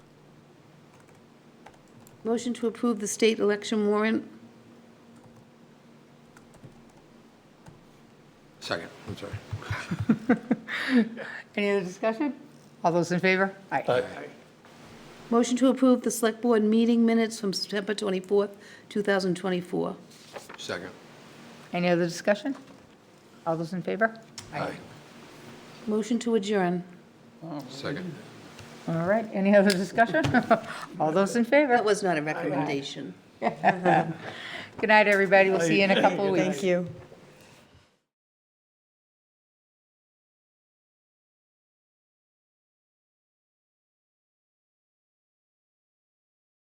Motion to approve the state election warrant. Second, I'm sorry. Any other discussion? All those in favor? Aye. Motion to approve the select board meeting minutes from September 24th, 2024. Second. Any other discussion? All those in favor? Aye. Motion to adjourn. Second. All right, any other discussion? All those in favor? That was not a recommendation. Good night, everybody. We'll see you in a couple of weeks. Thank you.